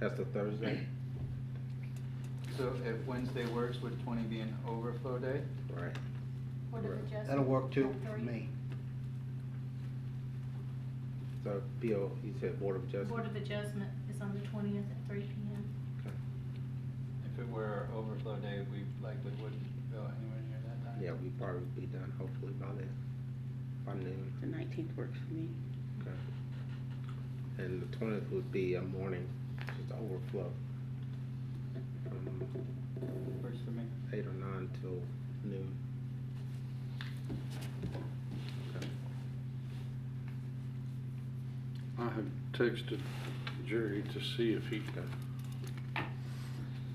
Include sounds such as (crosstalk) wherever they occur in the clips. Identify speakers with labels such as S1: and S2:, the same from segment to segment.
S1: That's the
S2: (clears throat)
S1: Thursday,
S2: So if Wednesday works, would twenty be an overflow day?
S1: right?
S3: What is it, Justin?
S4: That'll work too, for
S3: Three?
S4: me.
S1: So BO, you said Board of Justice?
S3: Board of Adjustment is on the twentieth at three P M.
S1: Okay.
S2: If it were our overflow day, we likely wouldn't go anywhere near that time.
S1: Yeah, we probably be done hopefully by then, by noon,
S5: The nineteenth works for me.
S1: okay? And the twentieth would be a morning, just overflow, from
S2: Works for me.
S1: eight or nine till noon. Okay.
S6: I have texted Jerry to see if he can.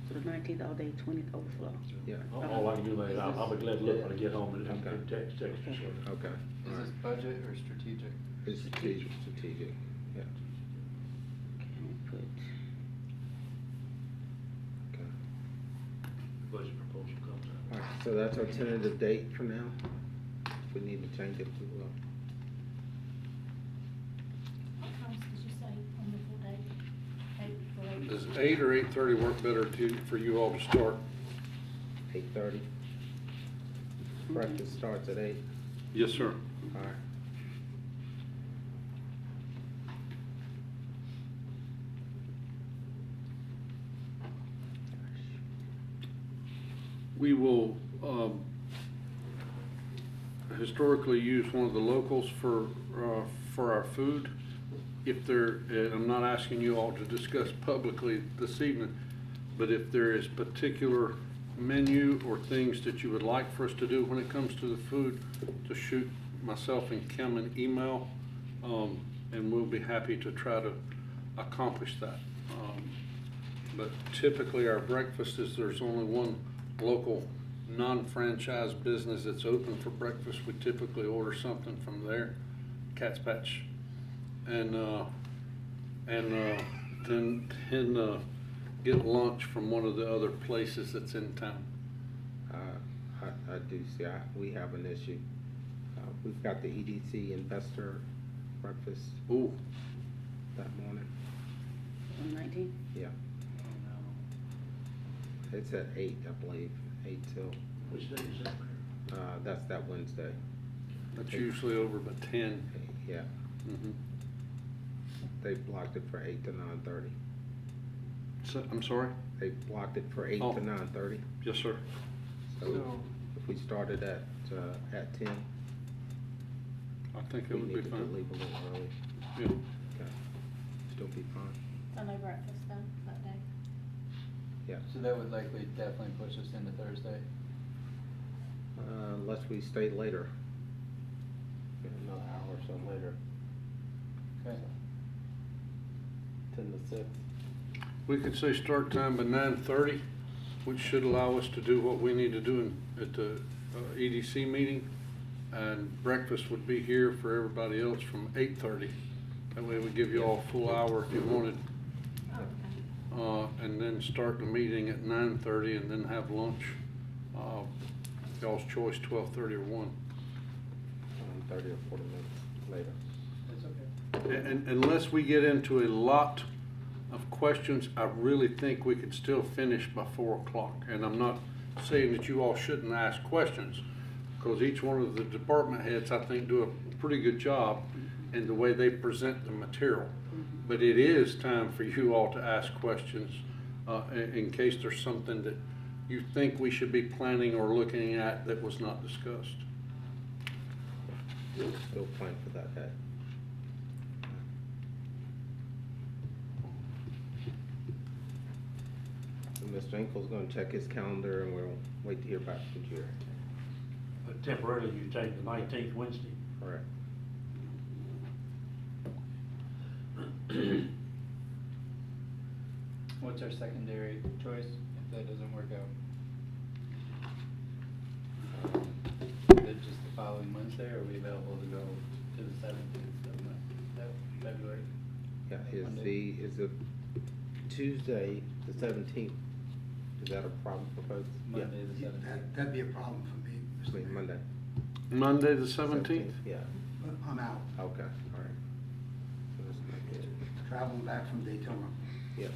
S5: So the nineteenth all day, twentieth overflow.
S1: Yeah,
S7: All Oh, I can do later, I'll, I'll be glad to look when I get home and and
S1: Okay.
S7: text, text you. so.
S1: okay,
S2: Is
S1: alright,
S2: this budget or strategic?
S1: it's strategic, strategic, yeah,
S5: Can we put,
S1: okay.
S7: Budget proposal comes out.
S1: Alright, so that's our tentative date for now, if we need to uh, change it, we will.
S3: What times did you say on the full day? Eight to eight?
S6: Does eight or eight thirty work better to, for you all to start?
S1: Eight thirty. Breakfast starts at eight,
S6: Yes, sir.
S1: alright.
S6: We will, um, historically use one of the locals for, uh, for our food. If there, and I'm not asking you all to discuss publicly this evening, but if there is particular menu or things that you would like for us to do when it comes to the food, to shoot myself and Kim an email, um, and we'll be happy to try to accomplish that. Um, but typically, our breakfast is, there's only one local non-franchise business that's open for breakfast. We typically order something from there, Cat's Patch. And, uh, and, uh, then, then, uh, get lunch from one of the other places that's in town.
S1: Uh, I, I do see, I, we have an issue. Uh, we've got the EDC investor breakfast
S6: Ooh,
S1: that morning,
S5: on nineteenth?
S1: yeah, it's at eight, I believe, eight till,
S7: Which day is that, Mayor?
S1: uh, that's that Wednesday,
S6: that's usually over by ten.
S1: yeah,
S6: Mhm.
S1: they blocked it for eight to nine thirty.
S6: So, I'm sorry?
S1: They blocked it for eight
S6: Oh.
S1: to nine thirty,
S6: Yes, sir.
S1: so
S2: So,
S1: if we started at, uh, at ten,
S6: I think it
S1: we
S6: would be
S1: needed to
S6: fine.
S1: leave a little early,
S6: Yeah.
S1: okay, still be fine,
S3: So no breakfast though, that day?
S1: yeah.
S2: so that would likely definitely push us into Thursday.
S1: Uh, Unless we stay later. Another hour or so later,
S2: Okay,
S1: ten to six.
S6: We could say start time by nine thirty, which should allow us to do what we need to do in- at the uh, EDC meeting. And breakfast would be here for everybody else from eight thirty. That way we give you all a full hour if you wanted.
S3: Oh, okay.
S6: Uh, and then start the meeting at nine thirty and then have lunch. Uh, y'all's choice, twelve thirty or one.
S1: Um, thirty or forty minutes later.
S2: that's okay.
S6: And unless we get into a lot of questions, I really think we could still finish by four o'clock. And I'm not saying that you all shouldn't ask questions, because each one of the department heads, I think, do a pretty good job in the way they present the material. But it is time for you all to ask questions, uh, in, in case there's something that you think we should be planning or looking at that was not discussed.
S1: We'll still plan for that day. And Mr. Enkel's gonna check his calendar and we'll wait to hear back from Jerry.
S7: But temporarily, you take the nineteenth Wednesday.
S1: Correct.
S2: What's our secondary choice if that doesn't work out? Is it just the following Wednesday, or are we available to go to the seventeenth of Mon- of February?
S1: Yeah, is the,
S2: Monday.
S1: is the Tuesday, the seventeenth, is that a problem for folks? Yeah.
S2: Monday the
S4: That-
S2: seventeenth.
S4: That'd be a problem for me,
S1: I
S4: Mr.
S1: mean,
S4: Mayor.
S1: Monday.
S6: Monday, the seventeenth?
S1: Yeah,
S4: But I'm out,
S1: okay, all right. So that's not good.
S4: traveling back from Daytona.
S1: Yeah.